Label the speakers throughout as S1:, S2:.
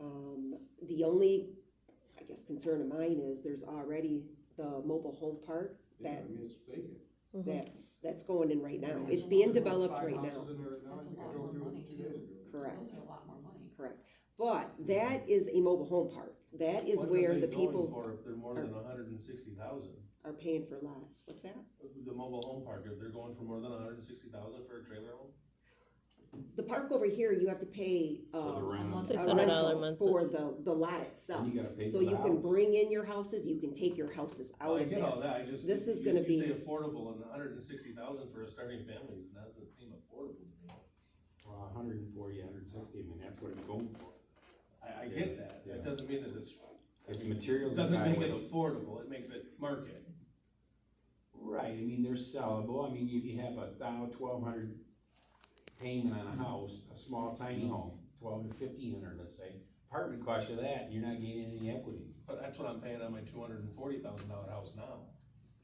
S1: Um, the only, I guess, concern of mine is there's already the mobile home park
S2: Yeah, I
S1: That-
S2: mean, it's vacant.
S3: Mm-hmm.
S1: that's, that's going in right now. It's
S2: There's
S1: being
S2: about
S1: developed
S2: five
S1: right now.
S2: houses in there right now. I
S4: That's a
S2: think I
S4: lot
S2: drove
S4: more
S2: through
S4: money,
S2: two
S4: too.
S2: days ago.
S1: Correct,
S4: Those are a lot more money.
S1: correct. But that is a mobile home park. That is where the people
S5: What are they going for if they're more than hundred and sixty thousand?
S1: are paying for lots. What's that?
S5: The mobile home park, if they're going for more than hundred and sixty thousand for a trailer home?
S1: The park over here, you have to pay,
S6: For the
S1: um,
S6: rent.
S1: a
S3: Six hundred dollar
S1: rental
S3: month.
S1: For the, the lot itself.
S5: And you gotta pay
S1: So
S5: for the
S1: you can
S5: house.
S1: bring in your houses, you can take your houses out
S5: I
S1: of
S5: get
S1: there.
S5: all that, I just.
S1: This is
S5: you-
S1: gonna be-
S5: You say affordable and hundred and sixty thousand for a starting family, is- doesn't seem affordable to me.
S6: Well, a hundred and forty, a hundred and sixty, I mean, that's what it's going for.
S5: I, I
S6: Yeah,
S5: get that,
S6: yeah.
S5: that doesn't mean that it's,
S6: It's
S5: it
S6: materials and
S5: doesn't make it
S6: highway.
S5: affordable, it makes it market.
S6: Right, I mean, they're sellable, I mean, if you have a thou, twelve hundred payment on a house, a small tiny home, twelve to fifteen hundred, let's say. Apartment cost you that, and you're not gaining any equity.
S5: But that's what I'm paying on my two hundred and forty thousand dollar house now,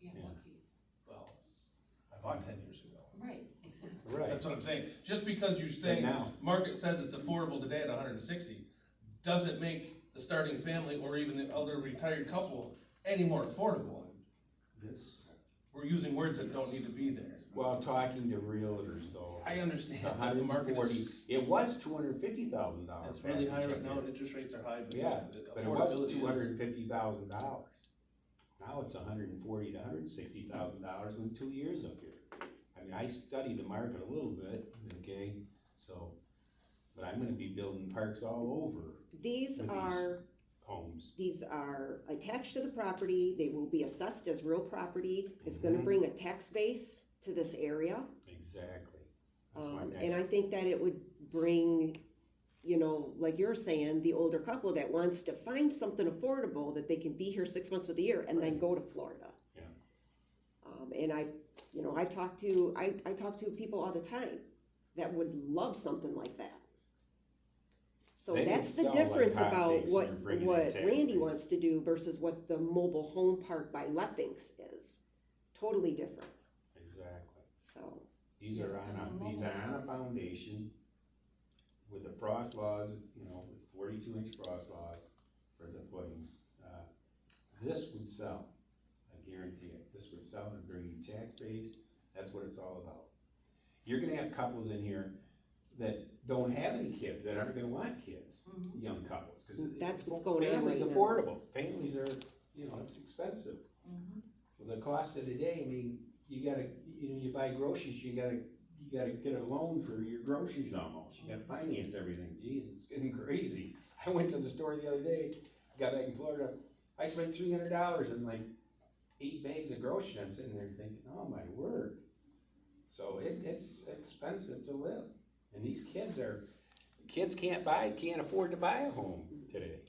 S4: Yeah,
S6: Yeah.
S4: lucky,
S5: well, I bought ten years ago.
S4: right, exactly.
S6: Right,
S5: That's what I'm saying, just because you say,
S6: now.
S5: market says it's affordable today at hundred and sixty, doesn't make the starting family or even the elder retired couple any more affordable.
S2: This,
S5: We're using words that don't need to be there.
S6: well, talking to realtors though.
S5: I understand
S6: A
S5: that
S6: hundred
S5: the
S6: and
S5: market
S6: forty,
S5: is,
S6: it was two hundred and fifty thousand dollars.
S5: it's really high right now, and interest rates are high, but
S6: Yeah,
S5: the
S6: but it was two
S5: affordability
S6: hundred
S5: is.
S6: and fifty thousand dollars. Now it's hundred and forty to hundred and sixty thousand dollars in two years up here. I mean, I study the market a little bit, okay, so, but I'm gonna be building parks all over
S1: These
S6: With these-
S1: are
S6: homes.
S1: These are attached to the property, they will be assessed as real property, it's gonna bring a tax base to this area.
S6: Exactly. That's my
S1: Um, and I
S6: next,
S1: think that it would bring, you know, like you're saying, the older couple that wants to find something affordable that they can be here six months of the year and then go to Florida.
S6: Yeah.
S1: Um, and I, you know, I've talked to, I, I talk to people all the time that would love something like that. So
S6: They would
S1: that's the
S6: sell like
S1: difference about
S6: hotcakes when
S1: what,
S6: you're bringing in
S1: what
S6: tax
S1: Randy
S6: base.
S1: wants to do versus what the mobile home park by Leppinks is. Totally different,
S6: exactly.
S1: so.
S6: These are on a, these are on a foundation with the frost laws, you know, with forty-two inch frost laws for the footings. Uh, This would sell, I guarantee it, this would sell and bring you tax base, that's what it's all about. You're gonna have couples in here that don't have any kids, that aren't gonna want kids,
S4: Mhm.
S6: young couples, cause.
S1: That's what's going on
S6: Families
S1: right now.
S6: affordable, families are, you know, it's expensive.
S1: Mm-hmm.
S4: Mhm.
S6: Well, the cost of the day, I mean, you gotta, you know, you buy groceries, you gotta, you gotta get a loan for your groceries almost, you gotta finance everything, jeez, it's getting crazy. I went to the store the other day, got back in Florida, I spent three hundred dollars on like eight bags of groceries, I'm sitting there thinking, oh my word. So it, it's expensive to live, and these kids are, kids can't buy, can't afford to buy a home today.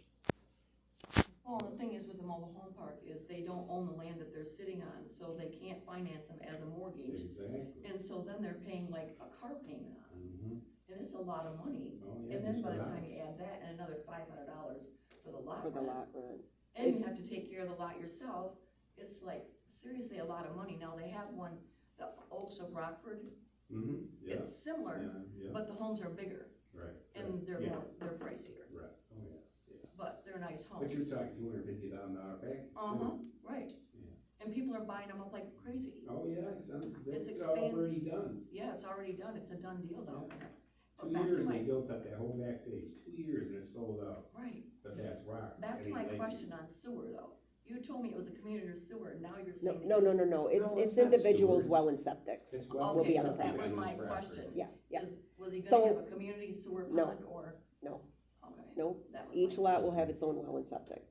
S4: Well, the thing is with the mobile home park is they don't own the land that they're sitting on, so they can't finance them as a mortgage.
S6: Exactly.
S4: And so then they're paying like a car payment on it,
S6: Mhm.
S4: and it's a lot of money.
S6: Oh, yeah,
S4: And then
S6: just
S4: by the time
S6: relax.
S4: you add that and another five hundred dollars for the lot
S1: For the
S4: rent,
S1: lot rent.
S4: and you have to take care of the lot yourself, it's like seriously a lot of money. Now, they have one, the Oaks of Rockford,
S6: Mhm, yeah,
S4: it's
S6: yeah,
S4: similar,
S6: yeah,
S4: but the homes are bigger
S6: right.
S4: and
S6: right,
S4: they're
S6: yeah.
S4: more, they're pricier,
S6: Right, oh yeah.
S4: but they're nice
S6: But you're
S4: homes.
S6: talking two hundred fifty thousand dollar package.
S4: Uh-huh, right.
S6: Yeah.
S4: And people are buying them up like crazy.
S6: Oh, yeah, it's, um, that's
S4: expand-
S6: already done.
S4: Yeah, it's already done, it's a done deal down there. But
S6: Two
S4: Oh, back to
S6: years,
S4: my,
S6: they built up that whole back face, two years and it's sold out,
S4: right,
S6: but that's rock.
S4: back
S6: That
S4: to
S6: ain't
S4: my
S6: like-
S4: question on sewer though. You told me it was a community sewer, and now you're
S1: No,
S4: saying.
S1: no, no, no, no, it's,
S6: No,
S1: it's
S6: it's not
S1: individuals,
S6: sewers.
S1: well and septics,
S6: It's well-
S1: will be
S4: Okay,
S1: on
S4: so
S1: the
S4: that was
S1: property.
S4: my
S6: It's property.
S4: question.
S1: yeah, yeah,
S4: Is- Was he
S1: So-
S4: gonna have a community sewer
S1: No.
S4: pond or,
S1: no,
S4: okay.
S1: no.
S4: that was
S1: Each
S4: my-
S1: lot will have its own well and septic,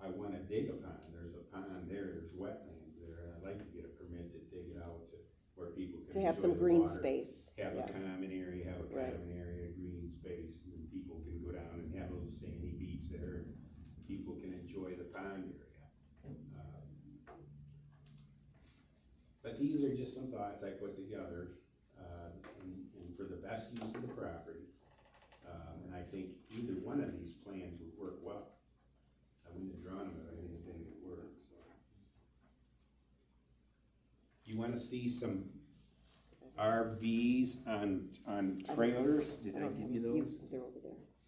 S6: I wanna dig a pond, there's a pond there, there's wetlands there, and I'd like to get a permit to dig it out to where people can.
S1: to have
S6: enjoy
S1: some
S6: the
S1: green
S6: water,
S1: space,
S6: Have
S1: yeah.
S6: a common area, have a
S1: Right.
S6: common area, green space, and then people can go down and have a little sandy beach there, and people can enjoy the pond area. Um, But these are just some thoughts I put together, uh, and, and for the best use of the property. Um, and I think either one of these plans would work well. I wouldn't have drawn them, but I didn't think it worked, so. You wanna see some RVs on, on trailers? Did I give you those?
S1: Um, They're over there,